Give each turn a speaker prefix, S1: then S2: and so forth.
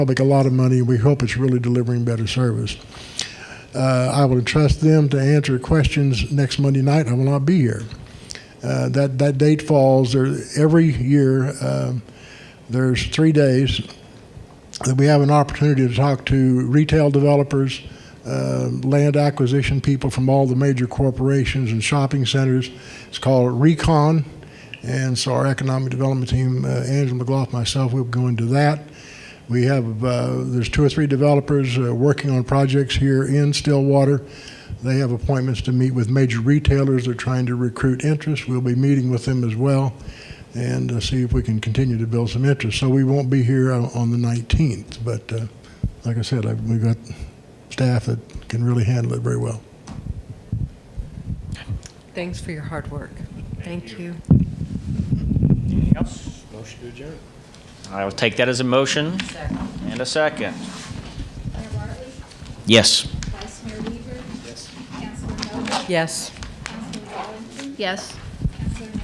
S1: public a lot of money, and we hope it's really delivering better service. Uh, I will entrust them to answer questions next Monday night. I will not be here. Uh, that that date falls there every year. um, there's three days that we have an opportunity to talk to retail developers, uh, land acquisition people from all the major corporations and shopping centers. It's called Recon, and so our economic development team, uh, Angela McLaughlin, myself, we'll go into that. We have uh, there's two or three developers uh, working on projects here in Stillwater. They have appointments to meet with major retailers. They're trying to recruit interest. We'll be meeting with them as well and uh, see if we can continue to build some interest. So we won't be here on on the 19th, but uh, like I said, I- we've got staff that can really handle it very well.
S2: Thanks for your hard work. Thank you.
S3: Anything else?
S4: Motion to adjourn.
S3: I will take that as a motion and a second.
S5: Mayor Bartley?
S3: Yes.
S5: Vice Mayor Weaver? Yes. Councilor Noble?
S2: Yes.
S5: Councilor Wallington?
S2: Yes.